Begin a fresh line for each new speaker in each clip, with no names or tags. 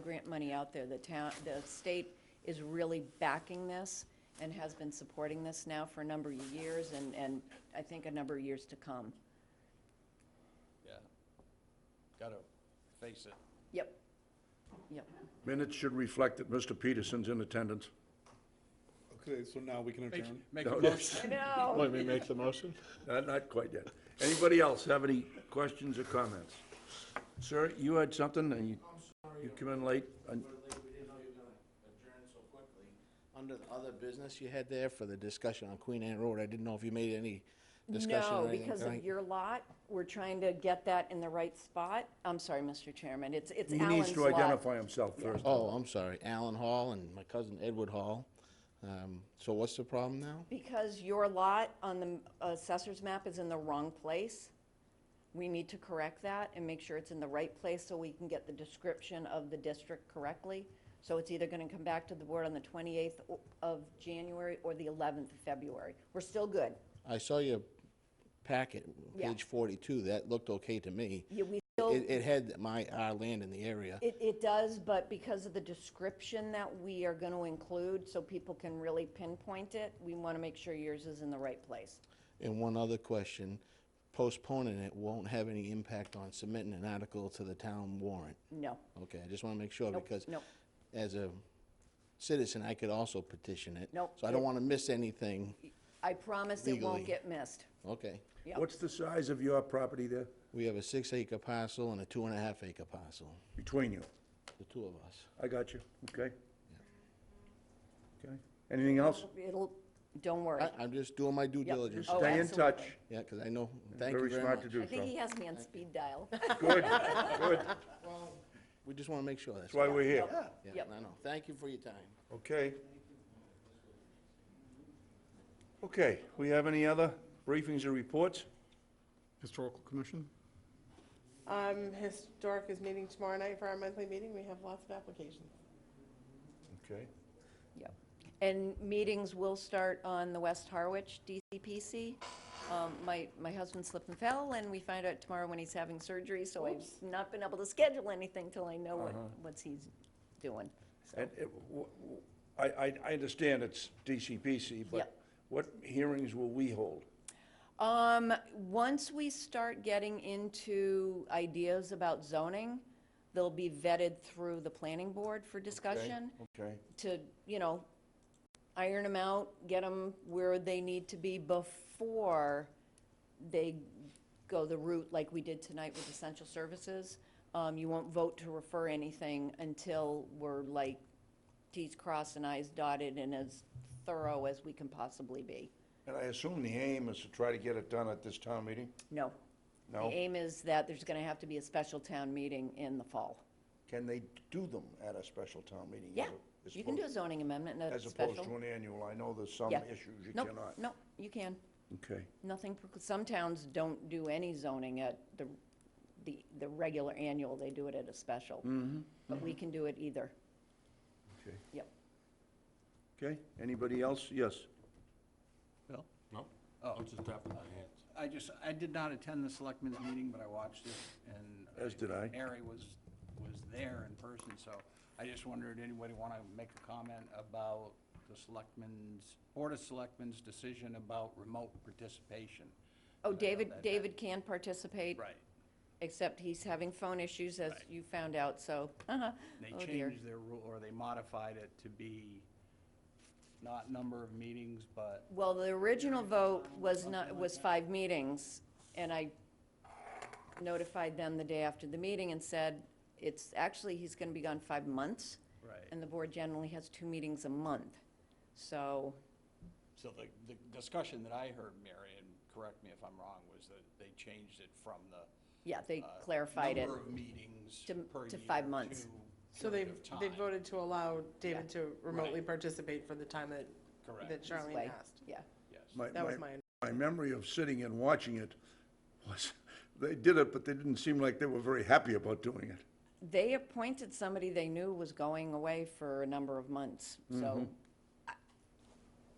grant money out there. The town, the state is really backing this and has been supporting this now for a number of years and, and I think a number of years to come.
Yeah. Gotta face it.
Yep. Yep.
Minutes should reflect that Mr. Peterson's in attendance.
Okay, so now we can
Make,
adjourn.
make a motion.
No.
Let me make the motion.
Not, not quite yet. Anybody else have any questions or comments? Sir, you had something and you, you came in late. and-
Under the other business you had there for the discussion on Queen Anne Road, I didn't know if you made any discussion
No,
or anything.
because of
tonight.
your lot, we're trying to get that in the right spot. I'm sorry, Mr. Chairman, it's, it's
He
Alan's lot.
needs to identify himself first.
Oh, I'm sorry, Alan Hall and my cousin Edward Hall. Um, So what's the problem now?
Because your lot on the assessor's map is in the wrong place, we need to correct that and make sure it's in the right place so we can get the description of the district correctly. So it's either gonna come back to the board on the twenty-eighth of January or the eleventh of February. We're still good.
I saw your packet,
Yeah.
page 42, that looked okay to me.
Yeah, we still,
It, it had my, our land in the area.
it, it does, but because of the description that we are gonna include, so people can really pinpoint it, we wanna make sure yours is in the right place.
And one other question, postponing it won't have any impact on submitting an article to the town warrant.
No.
Okay, I just want to make sure,
Nope,
because
nope.
as a citizen, I could also petition it.
Nope,
So I don't
it-
want to miss anything.
I promise it won't
Legally.
get missed.
Okay.
Yeah.
What's the size of your property there,
We have a six-acre parcel and a two-and-a-half-acre parcel,
between you?
the two of us.
I got you, okay? Okay, anything else?
Oh,
It'll, don't worry.
I, I'm just doing my due
Yep.
diligence.
Oh,
Stay in touch.
absolutely.
Yeah, because I know, thank you
Very
very
smart
much.
to
I
do
think he
so.
has me on speed dial.
Good, good. That's
We just want to make sure, that's
why
all.
we're here.
Yeah,
Yep.
I know. Thank you for your time.
Okay. Okay, we have any other briefings or reports?
Historical Commission?
Um, Historic is meeting tomorrow night for our monthly meeting. We have lots of applications.
Okay.
Yep. And meetings will start on the West Harwich DCPC. Um, My, my husband slipped and fell, and we find out tomorrow when he's having surgery, so I've not been able to schedule anything till I know what, what's he's doing.
And it- w- w- I, I- I understand it's DCPC, but
Yep.
what hearings will we hold?
Um, once we start getting into ideas about zoning, they'll be vetted through the planning board for discussion.
Okay,
to, you know, iron them out, get them where they need to be before they go the route like we did tonight with essential services. Um, you won't vote to refer anything until we're like Ts crossed and Is dotted and as thorough as we can possibly be.
and I assume the aim is to try to get it done at this town meeting?
No.
No.
The aim is that there's gonna have to be a special town meeting in the fall.
Can they do them at a special town meeting? as
Yeah,
a- as
you can do a
opposed-
zoning amendment and a
As opposed to
special.
an annual, I know there's some
Yeah.
issues you
No,
cannot.
No, you can.
Okay,
Nothing, preclu- some towns don't do any zoning at the, the, the regular annual, they do it at a special.
Mm-hmm.
But we can do it either,
okay,
yep.
okay, anybody else? Yes,
Bill? No, Oh, I'm just tapping my hands. I just, I did not attend the selectmen's meeting, but I watched it, and.
As did I.
Harry was, was there in person, so I just wondered, anybody want to make a comment about the selectmen's, Board of Selectmen's decision about remote participation?
Oh,
And I know
David,
that-
David can participate.
Right.
Except he's having phone issues, as you found out, so, uh-huh.
They
oh dear.
changed their rule, or they modified it to be not number of meetings, but
Well, the original vote was not, was five meetings, and I notified them the day after the meeting and said, it's, actually, he's gonna be gone five months.
Right.
And the board generally has two meetings a month, so,
So the, the discussion that I heard, Mary, and correct me if I'm wrong, was that they changed it from the.
yeah, they
uh,
clarified it.
Number of meetings
to-
per
to
year.
five months.
to
So they,
period of
they
time.
voted to allow David to remotely
Right.
participate for the time that,
Correct.
that Charlene
Like,
asked.
Yeah,
Yes.
my,
That was
my-
my-
my memory of sitting and watching it was, they did it, but they didn't seem like they were very happy about doing it.
they appointed somebody they knew was going away for a number of months, so,
Mm-hmm.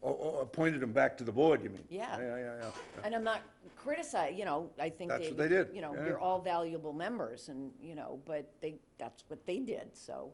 Or, or Oh, appointed them back to the board, you mean?
Yeah.
Yeah, yeah, yeah.
and I'm not criticizing, you know, I think
That's
they,
what they did,
you know,
yeah.
you're all valuable members, and, you know, but they, that's what they did, so,